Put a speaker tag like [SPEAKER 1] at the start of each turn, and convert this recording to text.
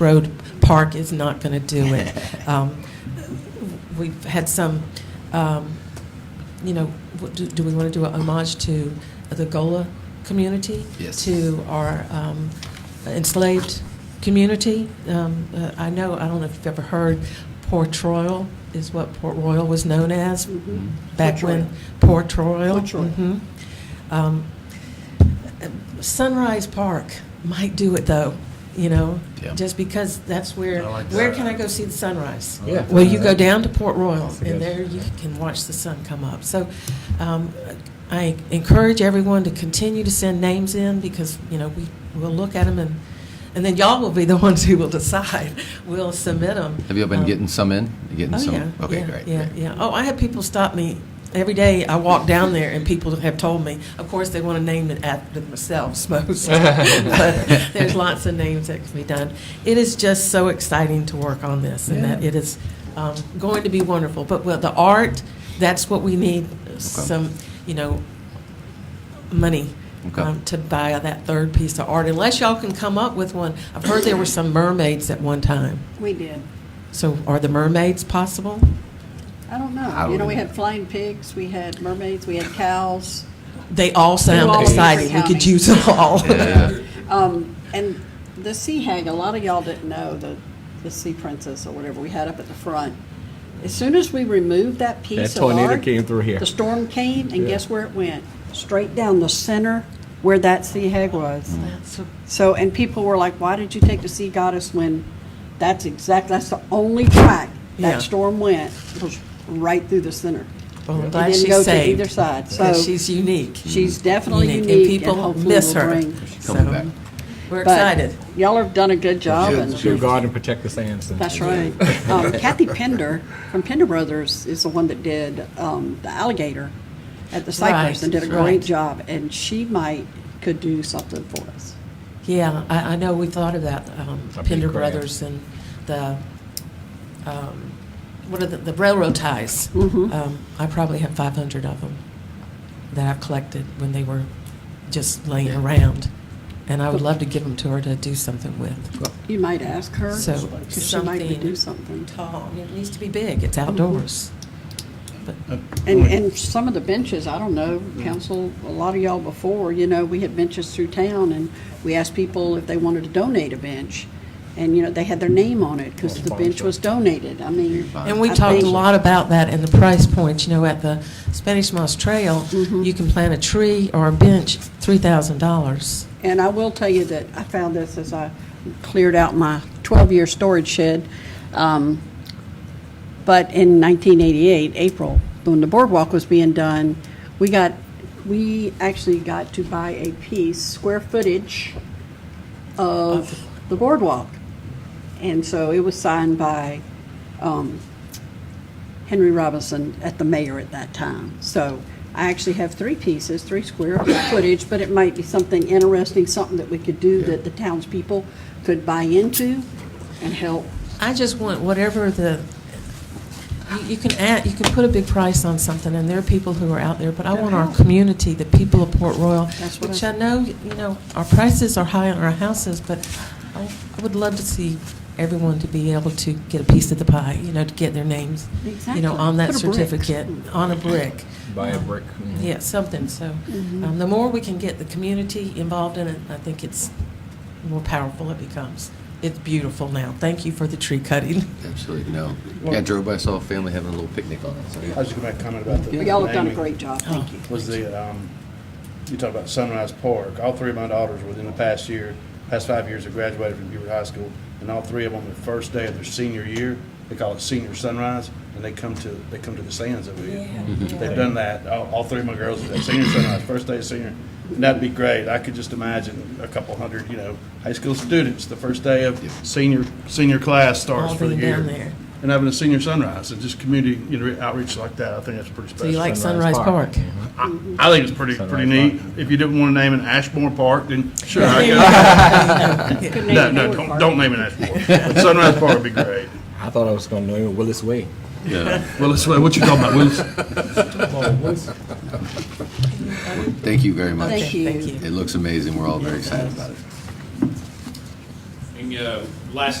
[SPEAKER 1] Road Park is not going to do it. Um, We've had some, um, you know, what do do we want to do a homage to the Gola community?
[SPEAKER 2] Yes.
[SPEAKER 1] To our um, enslaved community? Um, uh, I know, I don't know if you've ever heard, Port Royal is what Port Royal was known as
[SPEAKER 3] Mm-hmm.
[SPEAKER 1] back
[SPEAKER 3] Port
[SPEAKER 1] when
[SPEAKER 3] Royal.
[SPEAKER 1] Port Royal.
[SPEAKER 3] Port Royal.
[SPEAKER 1] Mhm. Um, Sunrise Park might do it though, you know,
[SPEAKER 2] Yeah.
[SPEAKER 1] just because that's where.
[SPEAKER 4] I like
[SPEAKER 1] where
[SPEAKER 4] that.
[SPEAKER 1] can I go see the sunrise?
[SPEAKER 4] I like Yeah. that.
[SPEAKER 1] Well, you go down to Port Royal,
[SPEAKER 4] That's a
[SPEAKER 1] and
[SPEAKER 4] good-
[SPEAKER 1] there you can watch the sun come up. So, um, I encourage everyone to continue to send names in because you know we will look at them and. And then y'all will be the ones who will decide. We'll submit Um, them.
[SPEAKER 2] Have you been getting some in? You Getting
[SPEAKER 1] Oh,
[SPEAKER 2] some?
[SPEAKER 1] yeah.
[SPEAKER 2] Okay,
[SPEAKER 1] yeah,
[SPEAKER 2] great.
[SPEAKER 1] Yeah,
[SPEAKER 2] great.
[SPEAKER 1] yeah. Oh, I have people stop me every day. I walk down there, and people have told me. Of course, they want to name it after themselves most. but there's lots of names that can be done. It is just so exciting to work on this, and that
[SPEAKER 2] Yeah.
[SPEAKER 1] it is um, going to be wonderful. But well, the art, that's what we need. Some, you know, money.
[SPEAKER 2] Okay.
[SPEAKER 1] Um, to buy that third piece of art, unless y'all can come up with one. I've heard there were some mermaids at one time.
[SPEAKER 3] We did.
[SPEAKER 1] So, are the mermaids possible?
[SPEAKER 3] I don't
[SPEAKER 2] I
[SPEAKER 3] know.
[SPEAKER 2] don't
[SPEAKER 3] You know, we
[SPEAKER 2] either.
[SPEAKER 3] had flying pigs, we had mermaids, we had cows.
[SPEAKER 1] They all sound
[SPEAKER 3] all
[SPEAKER 1] exciting. We
[SPEAKER 3] different
[SPEAKER 1] could
[SPEAKER 3] counties.
[SPEAKER 1] use them all.
[SPEAKER 2] Yeah.
[SPEAKER 3] Um, and the sea hag, a lot of y'all didn't know, the, the sea princess or whatever we had up at the front. As soon as we removed that piece
[SPEAKER 5] That
[SPEAKER 3] of
[SPEAKER 5] tornado
[SPEAKER 3] art,
[SPEAKER 5] came through here.
[SPEAKER 3] The storm came, and guess where it went? Straight down the center where that sea hag was.
[SPEAKER 5] Mm.
[SPEAKER 3] So, and people were like, why did you take the sea goddess when that's exact, that's the only track
[SPEAKER 1] Yeah.
[SPEAKER 3] that storm went, was right through the center.
[SPEAKER 1] Well, I'm
[SPEAKER 3] It
[SPEAKER 1] glad
[SPEAKER 3] didn't
[SPEAKER 1] she's
[SPEAKER 3] go to
[SPEAKER 1] saved.
[SPEAKER 3] either side,
[SPEAKER 1] 'cause
[SPEAKER 3] so-
[SPEAKER 1] she's unique.
[SPEAKER 3] She's definitely
[SPEAKER 1] Unique,
[SPEAKER 3] unique.
[SPEAKER 1] and people
[SPEAKER 3] hopefully
[SPEAKER 1] miss
[SPEAKER 3] will
[SPEAKER 1] her.
[SPEAKER 3] bring-
[SPEAKER 2] Coming
[SPEAKER 1] So,
[SPEAKER 2] back.
[SPEAKER 1] We're
[SPEAKER 3] but
[SPEAKER 1] excited.
[SPEAKER 3] Y'all have done a good job, and
[SPEAKER 5] Should guard and protect the sands. and-
[SPEAKER 3] that's right. Um, Kathy Pender from Pender Brothers is the one that did um, the alligator at the Cypress
[SPEAKER 1] Right,
[SPEAKER 3] and did a
[SPEAKER 1] right.
[SPEAKER 3] great job, and she might, could do something for us.
[SPEAKER 1] Yeah, I, I know we thought about um,
[SPEAKER 5] A big
[SPEAKER 1] Pender
[SPEAKER 5] grant.
[SPEAKER 1] Brothers and the, um, what are the, the railroad ties.
[SPEAKER 3] Mhm.
[SPEAKER 1] Um, I probably have 500 of them that I've collected when they were just laying around. And I would love to give them to her to do something with.
[SPEAKER 3] You might ask her,
[SPEAKER 1] So,
[SPEAKER 3] 'cause she might do something.
[SPEAKER 1] Tall, it needs to be big, it's outdoors.
[SPEAKER 3] Mm-hmm. And, and some of the benches, I don't know, council, a lot of y'all before, you know, we had benches through town, and we asked people if they wanted to donate a bench. And, you know, they had their name on it, because the bench was donated, I mean.
[SPEAKER 1] And we
[SPEAKER 3] I
[SPEAKER 1] talked a
[SPEAKER 3] think-
[SPEAKER 1] lot about that and the price points, you know, at the Spanish Moss Trail,
[SPEAKER 3] Mm-hmm.
[SPEAKER 1] you can plant a tree or a bench, three thousand dollars.
[SPEAKER 3] And I will tell you that I found this as I cleared out my 12-year storage shed. Um, But in 1988, April, when the boardwalk was being done, we got, we actually got to buy a piece, square footage of the boardwalk. And so it was signed by um, Henry Robinson at the mayor at that time. So I actually have three pieces, three square footage, but it might be something interesting, something that we could do that the townspeople could buy into and help.
[SPEAKER 1] I just want whatever the, you- you can add, you can put a big price on something, and there are people who are out there, but I want our community, the people of Port Royal,
[SPEAKER 3] That's what
[SPEAKER 1] which
[SPEAKER 3] I-
[SPEAKER 1] I know, you know, our prices are high on our houses, but I I would love to see everyone to be able to get a piece of the pie, you know, to get their names, you
[SPEAKER 3] Exactly.
[SPEAKER 1] know, on that
[SPEAKER 3] Put a brick.
[SPEAKER 1] certificate, on a brick. Um,
[SPEAKER 5] Buy a brick.
[SPEAKER 1] Yeah, something, so,
[SPEAKER 3] Mm-hmm.
[SPEAKER 1] um, the more we can get the community involved in it, I think it's the more powerful it becomes. It's beautiful now, thank you for the tree cutting.
[SPEAKER 2] Absolutely no. Yeah, I drove by, saw a family having a little picnic on it. So
[SPEAKER 6] I was just going to comment about the.
[SPEAKER 3] But y'all have done a great job, thank you.
[SPEAKER 6] Was the, um, you talk about Sunrise Park. All three of my daughters within the past year, past five years, have graduated from Beaver High School. And all three of them, the first day of their senior year, they call it senior sunrise, and they come to, they come to the sands over here. They've done that. All, all three of my girls have done senior sunrise, first day of senior. And that'd be great. I could just imagine a couple hundred, you know, high school students, the first day of senior, senior class starts
[SPEAKER 1] All
[SPEAKER 6] for the
[SPEAKER 1] being
[SPEAKER 6] year.
[SPEAKER 1] down there.
[SPEAKER 6] And having a senior sunrise and just community, you know, outreach like that, I think that's pretty special.
[SPEAKER 1] So you like Sunrise Park?
[SPEAKER 5] Sunrise Park.
[SPEAKER 6] I I think it's pretty, pretty
[SPEAKER 5] Sunrise
[SPEAKER 6] neat. If you didn't want to name it Ashmore Park, then sure, I
[SPEAKER 3] Good
[SPEAKER 6] go. No,
[SPEAKER 3] name,
[SPEAKER 6] no,
[SPEAKER 3] Hayward
[SPEAKER 6] don't,
[SPEAKER 3] Park.
[SPEAKER 6] don't name it Ashmore. But Sunrise Park would be great.
[SPEAKER 5] I thought I was going to know Willis Way.
[SPEAKER 6] Willis, Way, what you talking about, Willis?
[SPEAKER 2] Thank you very much.
[SPEAKER 3] Thank you.
[SPEAKER 1] Thank you.
[SPEAKER 2] It looks amazing. We're all very excited about it.
[SPEAKER 7] And, uh, last